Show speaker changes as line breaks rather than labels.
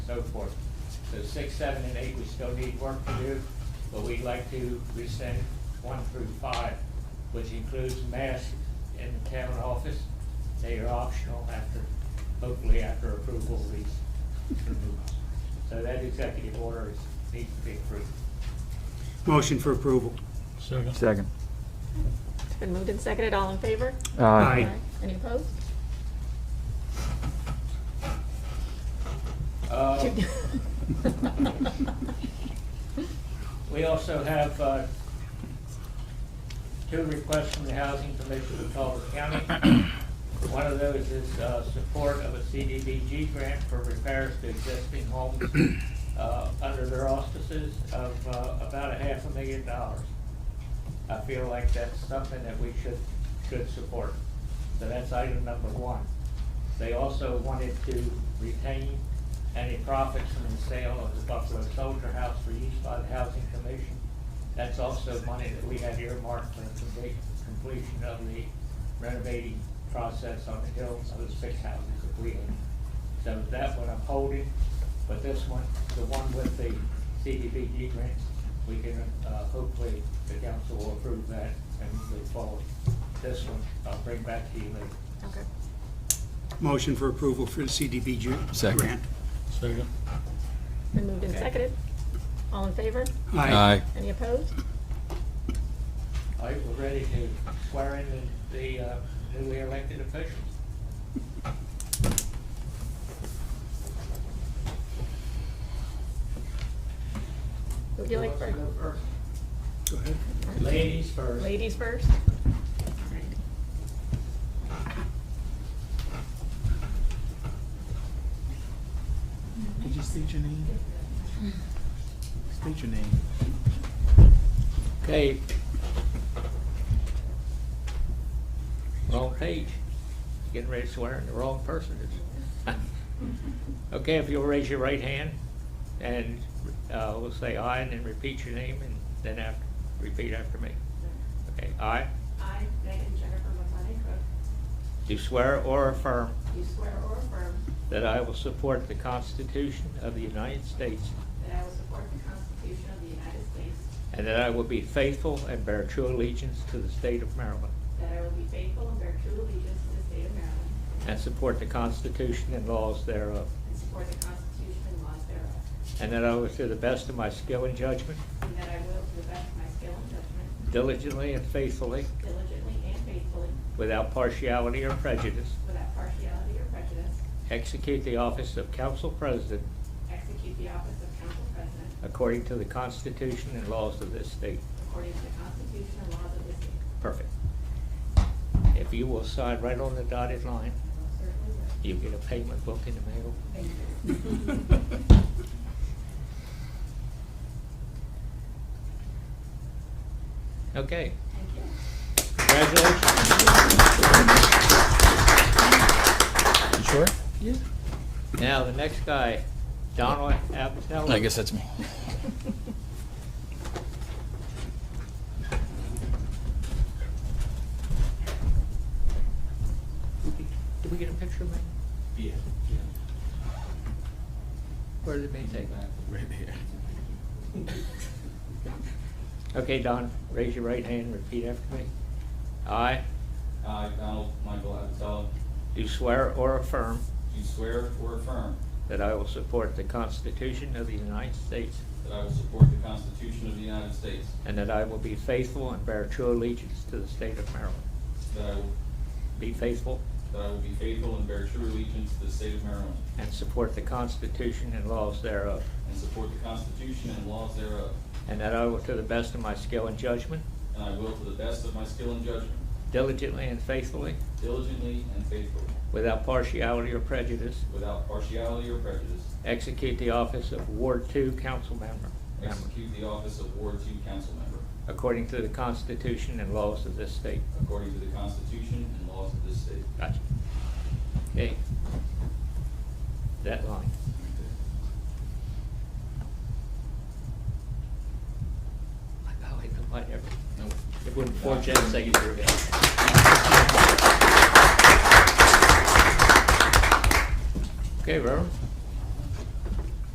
so forth. So six, seven, and eight, we still need work to do, but we'd like to rescind one through five, which includes masks in the town office. They are optional after, hopefully after approval of these removals. So that executive order is, needs to be approved.
Motion for approval.
Second.
Second.
It's been moved and seconded, all in favor?
Aye.
Any opposed?
Uh,
Um,
We also have uh, two requests from the Housing Commission of Culver County. One of those is uh, support of a CDBG grant for repairs to existing homes uh, under their auspices of uh, about a half a million dollars. I feel like that's something that we should, should support. So that's item number one. They also wanted to retain any profits from the sale of the Buffalo Soldier House for use by the Housing Commission. That's also money that we had earmarked for complete- completion of the renovating process on the hill of the six houses that we own. So that one I'm holding, but this one, the one with the CDBG grant, we can, uh, hopefully the council will approve that and move forward. This one, I'll bring back to you later.
Okay.
Motion for approval for the CDBG
Second.
grant.
Second.
It's Been moved and
Okay.
seconded, all in favor?
Aye.
Any opposed?
All right, we're ready to swear in the- the uh, newly elected officials.
Would you like
Who wants to go
for,
first?
Go ahead.
Ladies first.
ladies first?
Could you state your name? State your name.
Okay. Wrong page. Getting ready to swear in the wrong person. Okay, if you'll raise your right hand and uh, we'll say aye and then repeat your name and then after, repeat after me. Okay, aye.
I, Megan Jennifer McLennan Cook,
Do swear or affirm
do swear or affirm
that I will support the Constitution of the United States
that I will support the Constitution of the United States,
and that I will be faithful and bear true allegiance to the state of Maryland
that I will be faithful and bear true allegiance to the state of Maryland,
and support the Constitution and laws thereof.
and support the Constitution and laws thereof,
And that I will, to the best of my skill and judgment,
and that I will, to the best of my skill and judgment,
diligently and faithfully,
diligently and faithfully,
without partiality or prejudice,
without partiality or prejudice,
execute the office of council president
execute the office of council president
according to the Constitution and laws of this state.
according to the Constitution and laws of this state.
Perfect. If you will sign right on the dotted line,
Certainly will.
you get a payment book in the mail.
Thank you.
Okay,
Thank you.
congratulations.
You sure?
Now, the next guy, Donald Apatello.
I guess that's me.
Did we get a picture of me?
Yeah,
Where did me take that?
right there.
Okay, Don, raise your right hand and repeat after me. I
I, Donald Michael Abatello,
do swear or affirm
do swear or affirm
that I will support the Constitution of the United States
that I will support the Constitution of the United States,
and that I will be faithful and bear true allegiance to the state of Maryland.
that I will,
Be faithful
that I will be faithful and bear true allegiance to the state of Maryland,
and support the Constitution and laws thereof,
and support the Constitution and laws thereof,
and that I will, to the best of my skill and judgment,
and I will, to the best of my skill and judgment,
diligently and faithfully,
diligently and faithfully,
without partiality or prejudice,
without partiality or prejudice,
execute the office of Ward Two Council Member member,
execute the office of Ward Two Council Member,
according to the Constitution and laws of this state.
according to the Constitution and laws of this state.
Gotcha. Okay. That line. Like, oh, I don't like every- It wouldn't forge that second year ago. Okay, Reverend.